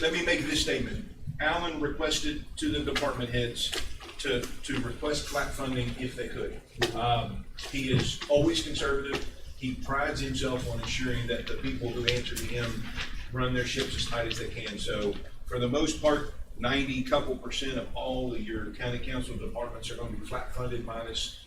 let me make this statement. Alan requested to the department heads to, to request flat funding if they could. Um, he is always conservative. He prides himself on ensuring that the people who answer to him run their ships as tight as they can. So for the most part, ninety couple percent of all of your county council departments are gonna be flat funded minus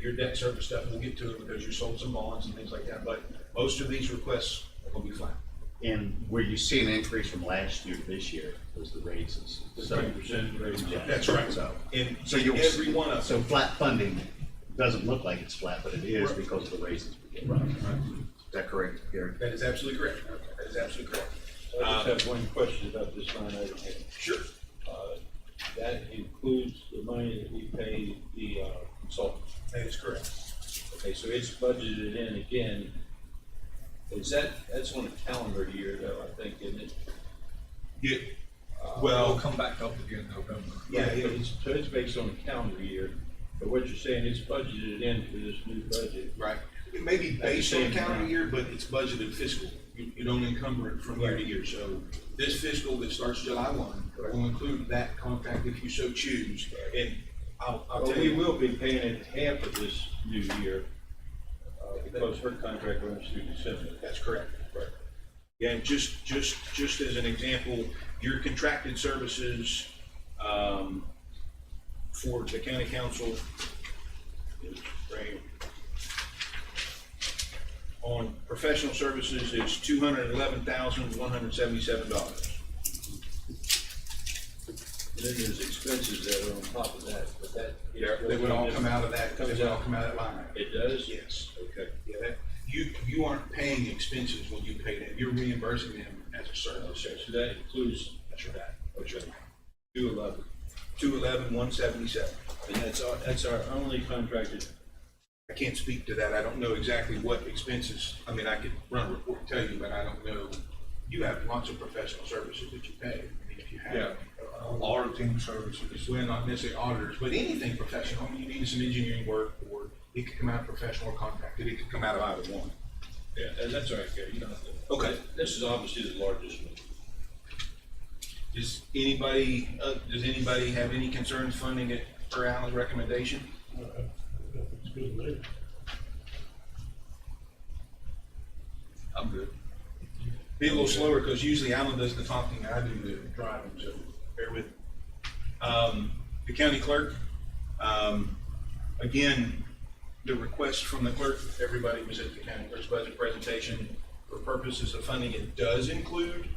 your debt service stuff. We'll get to it because you sold some bonds and things like that, but most of these requests are gonna be flat. And where you see an increase from last year to this year was the raises. So, percent raise. Yeah. That's right. So- And so you'll. every one of So them. flat funding doesn't look like it's flat, but it is Right. because of the raises we get. Right. Is that correct, Gary? That is absolutely correct. That is absolutely correct. Um, I just have one question about this line item here. Sure. Uh, That includes the money that we pay the uh, consultants. That is correct. Okay, so it's budgeted in again. Is that, that's on a calendar year though, I think, isn't it? Yeah, Uh, well, come back up again in November. yeah, Right, yeah. but it's, so it's based on a calendar year, but what you're saying, it's budgeted in for this new budget. Right. It may be based on calendar year, but it's budgeted fiscal. You, you don't encumber it from year to year. So this fiscal that starts July one will include that contract if you so choose. And I'll, I'll Well, tell we you, will be paying it half of this new year, uh, because her contract runs through December. that's correct. Right. Yeah, and just, just, just as an example, your contracted services, um, for the county council is right. On professional services is two hundred and eleven thousand, one hundred and seventy-seven dollars. And then there's expenses that are on top of that, but that. Yeah, they would all come out of that, they Comes would all out. come out of that line. item. It does? Yes. Okay. Yeah, that, you, you aren't paying expenses when you pay that, you're reimbursing them as a service. So that includes That's right. That's right. two eleven, Two eleven, one seventy-seven. and that's our, that's our only contracted, I can't speak to that, I don't know exactly what expenses, I mean, I could run a report and tell you, but I don't know. You have lots of professional services that you pay, I mean, if you have. Auditing services. Well, not necessarily auditors, but anything professional, you need some engineering work, or it could come out of professional or contracted, it could come out of either one. yeah, and that's all right, Gary, you don't have to. Okay. This is obviously the largest one. Does anybody, uh, does anybody have any concerns funding it per Alan's recommendation? It's good later. I'm good. Be a little slower, because usually Alan does the talking, I do the driving, so bear with. me. Um, the county clerk, um, again, the request from the clerk, everybody was at the county clerk's budget presentation. For purposes of funding, it does include,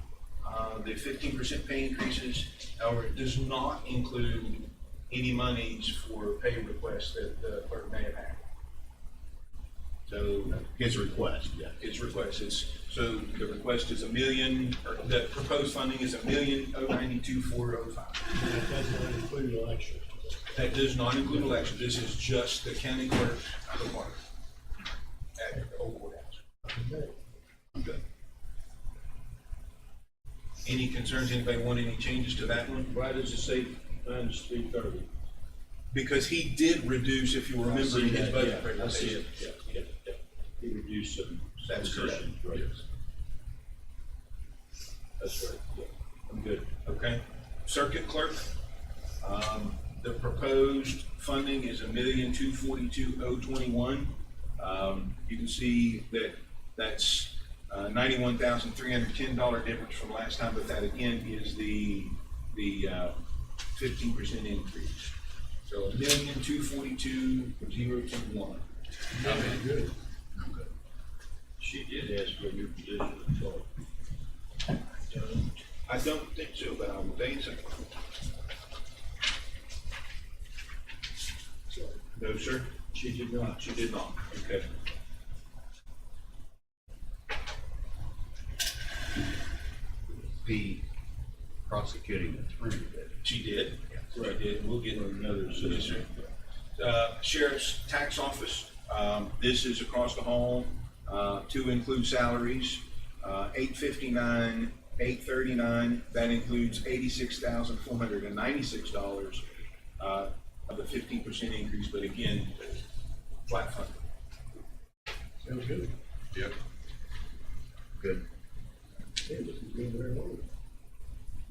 uh, the fifteen percent pay increases. However, it does not include any monies for pay requests that the clerk may have had. So His request, yeah. is request is, so the request is a million, or the proposed funding is a million oh ninety-two four oh five. That does not include election. That does not include elections, this is just the county clerk department at Old Courthouse. Okay. I'm good. Any concerns, anybody want any changes to that one? Why does it say nine to three thirty? Because he did reduce, if you remember, in his budget I see presentation. it, yeah, yeah, yeah. He reduced some. some That's correct. positions, right? That's right, yeah, I'm good. Okay, circuit clerk, um, the proposed funding is a million two forty-two oh twenty-one. Um, you can see that that's uh ninety-one thousand three hundred ten dollar difference from last time, but that again is the, the, uh, fifteen percent increase. So a million two forty-two zero two one. Very good. She did ask for a new position, so. I don't think so, but I will tell you something. No, sir? She did not. She did not. Okay. The prosecuting attorney that She did. Right, yeah, we'll get another Yes, sir. assistant. Uh, Sheriff's Tax Office, um, this is across the hall, uh, to include salaries, uh, eight fifty-nine, eight thirty-nine, that includes eighty-six thousand four hundred and ninety-six dollars, uh, of the fifteen percent increase, but again, flat funded. Sounds good. Yep. good. Hey, this is going very well.